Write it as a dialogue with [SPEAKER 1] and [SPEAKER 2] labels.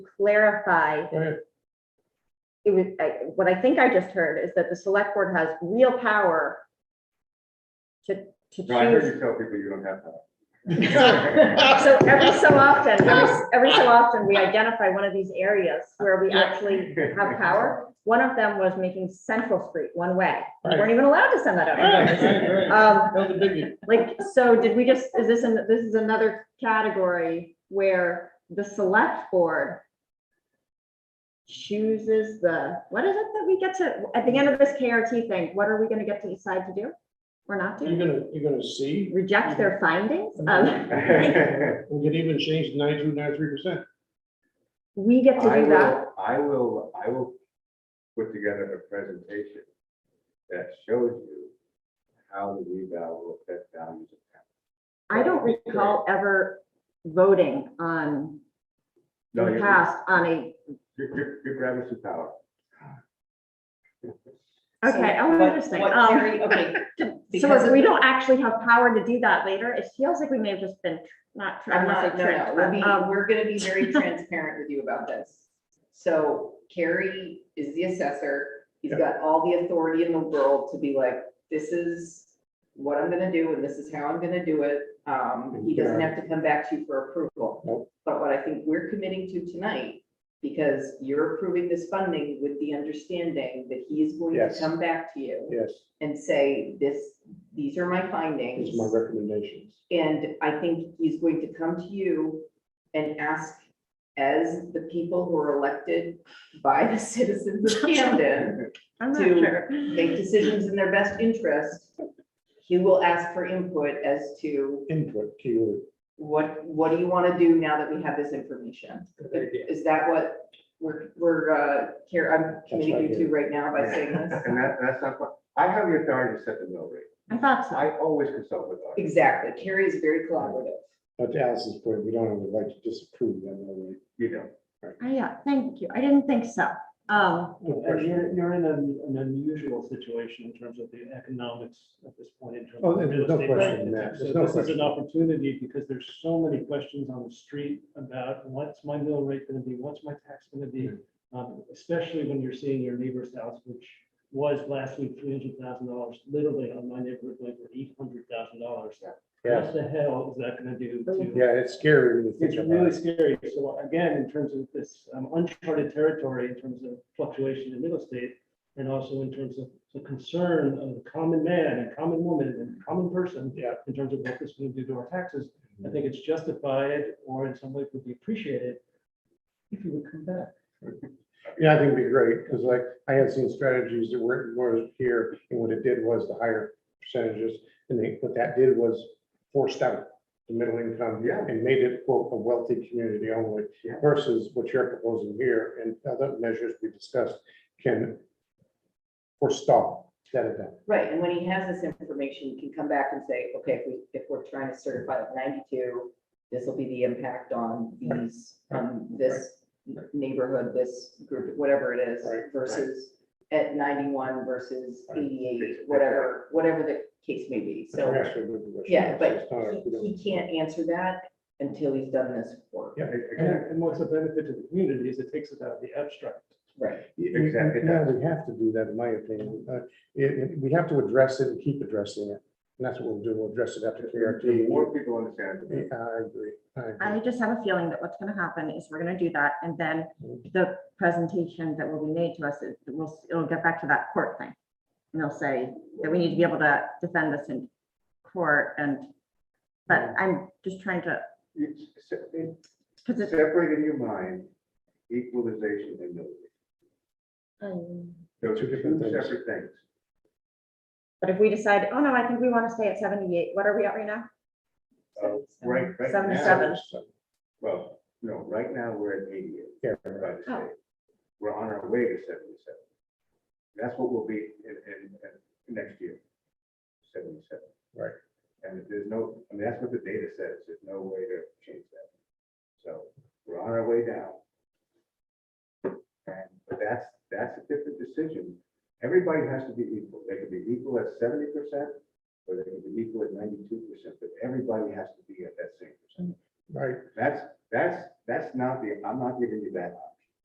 [SPEAKER 1] clarify.
[SPEAKER 2] Go ahead.
[SPEAKER 1] It was, I- what I think I just heard is that the select board has real power to, to
[SPEAKER 3] No, I heard
[SPEAKER 1] choose.
[SPEAKER 3] you tell people you don't have that.
[SPEAKER 1] So every so often, every- every so often, we identify one of these areas where we actually have power. One of them was making Central Street one way. We weren't even allowed to send that out. Um,
[SPEAKER 2] That was a biggie.
[SPEAKER 1] Like, so did we just, is this, an- this is another category where the select board chooses the, what is it that we get to, at the end of this KRT thing, what are we gonna get to decide to do? Or not
[SPEAKER 2] You're
[SPEAKER 1] do?
[SPEAKER 2] gonna, you're gonna see,
[SPEAKER 1] Reject their findings? Um,
[SPEAKER 2] we could even change ninety-two, ninety-three percent.
[SPEAKER 1] we get to
[SPEAKER 3] I
[SPEAKER 1] do that.
[SPEAKER 3] will, I will, I will put together a presentation that shows you how the reval will affect values of town.
[SPEAKER 1] I don't recall ever voting on,
[SPEAKER 3] No,
[SPEAKER 1] in the
[SPEAKER 3] you're-
[SPEAKER 1] past, on a,
[SPEAKER 3] You're, you're, you're grabbing some power.
[SPEAKER 1] okay,
[SPEAKER 4] So
[SPEAKER 1] oh,
[SPEAKER 4] what-
[SPEAKER 1] interesting.
[SPEAKER 4] what
[SPEAKER 1] Um,
[SPEAKER 4] Carrie- Okay.
[SPEAKER 1] So
[SPEAKER 4] because
[SPEAKER 1] if we
[SPEAKER 4] of-
[SPEAKER 1] don't actually have power to do that later, it feels like we may have just been tr- not, tr- I
[SPEAKER 4] I'm
[SPEAKER 1] want
[SPEAKER 4] not,
[SPEAKER 1] to
[SPEAKER 4] no,
[SPEAKER 1] say
[SPEAKER 4] no,
[SPEAKER 1] tricked,
[SPEAKER 4] we'll
[SPEAKER 1] but,
[SPEAKER 4] be-
[SPEAKER 1] um,
[SPEAKER 4] we're gonna be very transparent with you about this. So Carrie is the assessor, he's
[SPEAKER 3] Yeah.
[SPEAKER 4] got all the authority in the world to be like, this is what I'm gonna do and this is how I'm gonna do it. Um, he doesn't have to come back to you for approval.
[SPEAKER 2] Nope.
[SPEAKER 4] But what I think we're committing to tonight, because you're approving this funding with the understanding that he's going to
[SPEAKER 2] Yes.
[SPEAKER 4] come back to you
[SPEAKER 2] Yes,
[SPEAKER 4] and say, this, these are my findings.
[SPEAKER 2] these are my recommendations.
[SPEAKER 4] And I think he's going to come to you and ask, as the people who are elected by the citizens of Camden,
[SPEAKER 1] I'm not
[SPEAKER 4] to
[SPEAKER 1] sure.
[SPEAKER 4] make decisions in their best interest, he will ask for input as to
[SPEAKER 2] Input, keyword.
[SPEAKER 4] what, what do you want to do now that we have this information? Is that what we're, we're, uh, here, I'm committing you to right now by saying this?
[SPEAKER 3] And that, that's not, what- I have the authority to set the mill rate.
[SPEAKER 1] I thought so.
[SPEAKER 3] I always consult with others.
[SPEAKER 4] Exactly. Carrie is very collaborative.
[SPEAKER 2] But to Alice's point, we don't have the right to disapprove that, no
[SPEAKER 3] You know,
[SPEAKER 1] Oh, Yeah, thank you. I didn't think so. Um,
[SPEAKER 5] And
[SPEAKER 2] way.
[SPEAKER 5] you're, you're in an an unusual situation in terms of the economics at this point in terms.
[SPEAKER 2] Oh,
[SPEAKER 5] of
[SPEAKER 2] there's
[SPEAKER 5] real
[SPEAKER 2] no
[SPEAKER 5] estate
[SPEAKER 2] question in
[SPEAKER 5] market.
[SPEAKER 2] that.
[SPEAKER 5] So
[SPEAKER 2] There's no
[SPEAKER 5] This is
[SPEAKER 2] question.
[SPEAKER 5] an opportunity because there's so many questions on the street about what's my mill rate gonna be, what's my tax gonna be?
[SPEAKER 2] Mm-hmm.
[SPEAKER 5] Um, especially when you're seeing your neighbor's house, which was last week three hundred thousand dollars, literally on my neighborhood, like for eight hundred thousand dollars. What the hell is that gonna do to?
[SPEAKER 2] Yeah, it's scary when you
[SPEAKER 5] It's
[SPEAKER 2] think about
[SPEAKER 5] really
[SPEAKER 2] it.
[SPEAKER 5] scary. So again, in terms of this um, uncharted territory, in terms of fluctuation in real estate, and also in terms of the concern of the common man and common woman and common person,
[SPEAKER 2] Yeah. Mm-hmm.
[SPEAKER 5] in terms of what this will do to our taxes, I think it's justified or in some way would be appreciated if you would come back.
[SPEAKER 2] Yeah, I think it'd be great, because like, I had seen strategies that weren't, were here, and what it did was the higher percentages, and they, what that did was forced out the middle income.
[SPEAKER 3] Yeah.
[SPEAKER 2] And made it quote a wealthy community only
[SPEAKER 3] Yeah.
[SPEAKER 2] versus what you're proposing here and other measures we discussed can forestall that event.
[SPEAKER 4] Right, and when he has this information, he can come back and say, okay, if we, if we're trying to certify at ninety-two, this will be the impact on these, on this neighborhood, this group, whatever it is,
[SPEAKER 2] Right, right.
[SPEAKER 4] versus at ninety-one versus
[SPEAKER 3] Right.
[SPEAKER 4] eighty-eight, whatever, whatever the case may be,
[SPEAKER 2] I'm
[SPEAKER 4] so,
[SPEAKER 2] actually moving this.
[SPEAKER 4] yeah, but
[SPEAKER 2] It's not a- we don't-
[SPEAKER 4] he, he can't answer that until he's done this work.
[SPEAKER 2] Yeah.
[SPEAKER 3] again,
[SPEAKER 5] And and what's the benefit to the community is it takes it out of the abstract.
[SPEAKER 4] Right,
[SPEAKER 3] Exactly.
[SPEAKER 2] Yeah, we have to do that, in my opinion. Uh, it- it- we have to address it and keep addressing it. And that's what we'll do. We'll address it after
[SPEAKER 3] the
[SPEAKER 2] KRT.
[SPEAKER 3] more people understand, the
[SPEAKER 2] Yeah, I agree. I
[SPEAKER 1] I
[SPEAKER 2] agree.
[SPEAKER 1] just have a feeling that what's gonna happen is we're gonna do that, and then the presentation that will be made to us, it will, it'll get back to that court thing. And they'll say that we need to be able to defend this in court, and, but I'm just trying to,
[SPEAKER 3] It's se- it-
[SPEAKER 1] because it's.
[SPEAKER 3] Separate in your mind equalization and mill rate. Those
[SPEAKER 2] Two
[SPEAKER 3] are
[SPEAKER 2] different
[SPEAKER 3] two
[SPEAKER 2] things.
[SPEAKER 3] separate things.
[SPEAKER 1] But if we decide, oh no, I think we want to stay at seventy-eight, what are we at right now?
[SPEAKER 3] Uh, Right, right
[SPEAKER 1] Seven,
[SPEAKER 3] now,
[SPEAKER 1] seven.
[SPEAKER 2] So,
[SPEAKER 3] well, no, right now, we're at eighty-eight.
[SPEAKER 2] Yeah,
[SPEAKER 3] by
[SPEAKER 2] right.
[SPEAKER 3] the
[SPEAKER 1] Oh.
[SPEAKER 3] state. We're on our way to seventy-seven. That's what we'll be in, in, in next year, seventy-seven.
[SPEAKER 2] Right.
[SPEAKER 3] And there's no, I mean, that's what the data says, there's no way to change that. So we're on our way down. And, but that's, that's a different decision. Everybody has to be equal. They can be equal at seventy percent, or they can be equal at ninety-two percent, but everybody has to be at that same percent.
[SPEAKER 2] right?
[SPEAKER 3] That's, that's, that's not the, I'm not giving you that option.